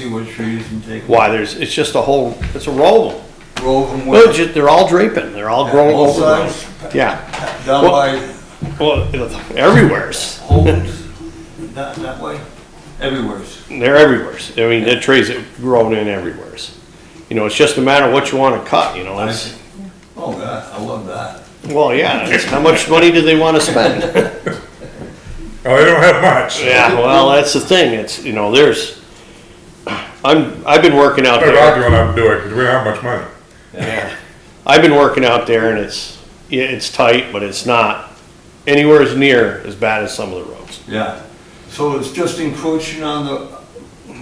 See what trees and take. Why, there's, it's just a whole, it's a roll of them. Roll them Well, with. ju- they're all draping, they're all growing Both over. the- sides, Yeah, Down Well- by well, it- everywhere's, holes, that, that way, everywhere's. they're everywhere's. I mean, the trees have grown in everywhere's. You know, it's just a matter of what you wanna cut, you know, it's, Oh, God, I love that. well, yeah, it's how much money do they wanna spend? Oh, they don't have much. Yeah, well, that's the thing, it's, you know, there's, I'm, I've been working out They're there. arguing I'm doing because we don't have much money. I've been working out there and it's, yeah, it's tight, but it's not anywhere as near as bad as some of the roads. Yeah. So it's just encroaching on the.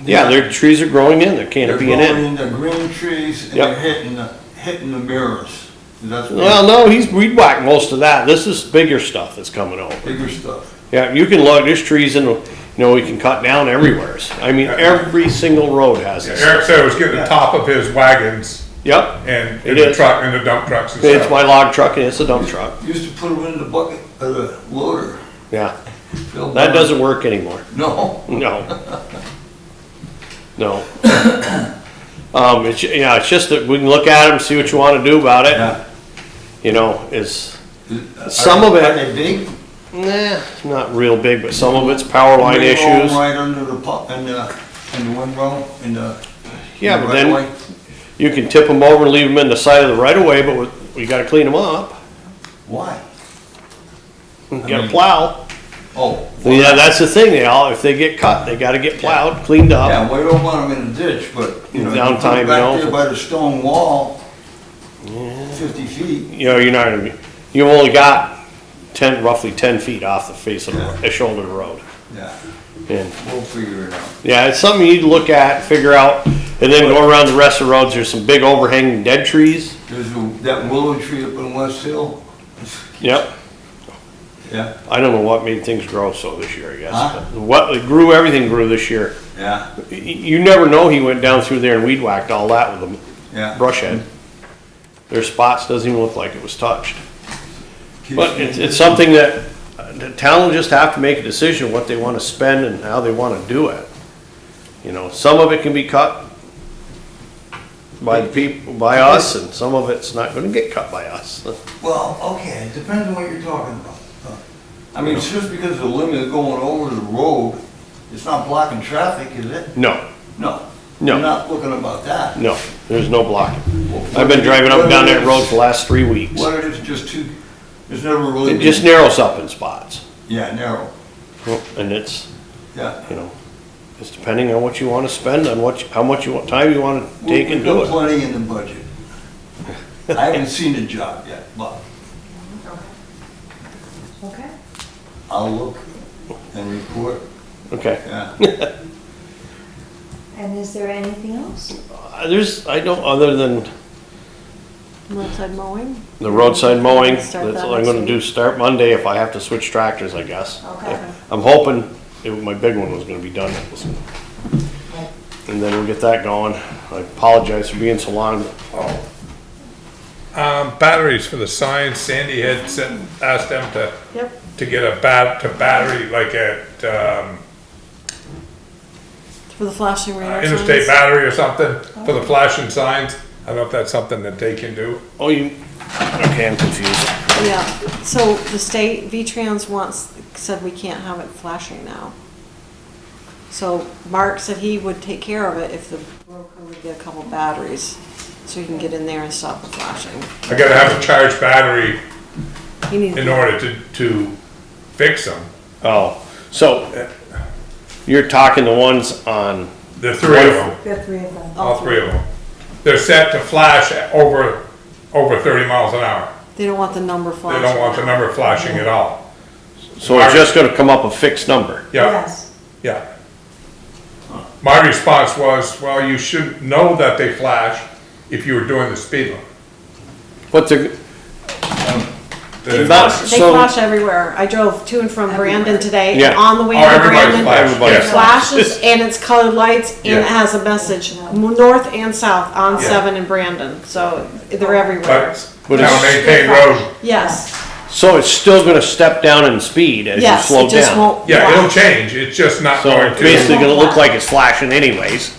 Yeah, their trees are growing in, their They're canopying in. going in the green trees and Yep. they're hitting, the hitting the mirrors. That's Well, no, he's weed whacked most of that. This is bigger stuff that's coming over. bigger stuff. Yeah, you can look, there's trees in, you know, we can cut down everywhere. I mean, every single road has this. Eric said it was getting the top of his wagons Yep, and It in the is. truck and the dump trucks and it's stuff. my log truck and it's a dump truck. Used to put them in the bucket of the loader. Yeah, Fill that them. doesn't work anymore. No. No. No. Um, it's, yeah, it's just that we can look at them, see what you wanna do about it. Yeah. You know, it's, Some of it- Are they big? nah, not real big, but some of it's power line They roll issues. Right under the pump and the, and the windrow and the. Yeah, and but the then. right-of-way. You can tip them over and leave them in the side of the right of way, but with- you gotta clean them up. Why? You gotta plow. Oh. Yeah, that's the thing, they all, if they get cut, they gotta get plowed, cleaned up. Yeah, we don't want them in a ditch, but, you know. you put 'em Downtime, Back you know. there by the stone wall, fifty feet, You know, you're not, gonna be- you only got ten, roughly ten feet off the face of the, ro- the shoulder of the road. yeah, And, we'll figure it out. yeah, it's something you need to look at, figure out, and then go around the rest of the roads, there's some big overhanging dead trees. There's a- that willow tree up in West Hill, Yep, yeah, I don't know what made things grow so this year, I guess. Huh? but What, it grew, everything grew this year. yeah, Y- You never know, he went down through there and weed whacked all that with a yeah. brush head. Their spots doesn't even look like it was touched. Keeps But me- it's, it's something that uh, the town will just have to make a decision what they wanna spend and how they wanna do it. You know, some of it can be cut by the people, by us, and some of it's not gonna get cut by us. Well, okay, it depends on what you're talking about. I mean, it's just because the limit of going over the road, it's not blocking traffic, is it? No, No. No. You're not looking about that. no, there's no blocking. I've been driving up and down that road for the last three weeks. What if it's just too, there's never really. It just been- narrows up in spots, Yeah, narrow, and it's, yeah. you know, it's depending on what you wanna spend, on what, you- how much you want, time you wanna take and We've do got it. Plenty in the budget. I haven't seen the job yet, but Okay. I'll look and report, Okay. yeah. And is there anything else? Uh, There's, I don't, other than Roadside mowing? the roadside mowing, that's Start that what I'm gonna next do, start Monday if I have to switch tractors, I guess. Okay. I'm hoping, it- my big one was gonna be done. It was- And then we'll get that going. I apologize for being so long. Um, batteries for the signs, Sandy had sent, asked them to, Yep. to get a bat, to battery, like at, um, For the flashing radar signs? Uh, interstate battery or something for the flashing signs. I don't know if that's something that they can do. Oh, you, okay, I'm confused. Yeah, so the state, V-Trans wants, said we can't have it flashing now. So Mark said he would take care of it if the broker would get a couple batteries, so he can get in there and stop the flashing. I gotta have a charged battery He needs. in order to, to fix them. Oh, so you're talking the ones on, The three of them, There are three of them. all three of them. They're set to flash at over, over thirty miles an hour. They don't want the number They flashing. don't want the number flashing at all. so it's just gonna come up a fixed number. Yeah. Yeah. My response was, well, you should know that they flash if you were doing the speed limit. But the, That is- That's- They So- flash everywhere. I drove to and from Brandon today, and Yeah. on the way Oh, to everybody's Brandon, flashed, it yes. flashes and it's colored lights and Yeah. it has a message, m- north and south on Yeah. seven in Brandon. So they're everywhere. But But now it's- maintain road, Yes, so it's still gonna step down in speed as you yes, slow it just down. won't. yeah, flash. it'll change, it's just not So going it's basically to. gonna look like it's flashing anyways.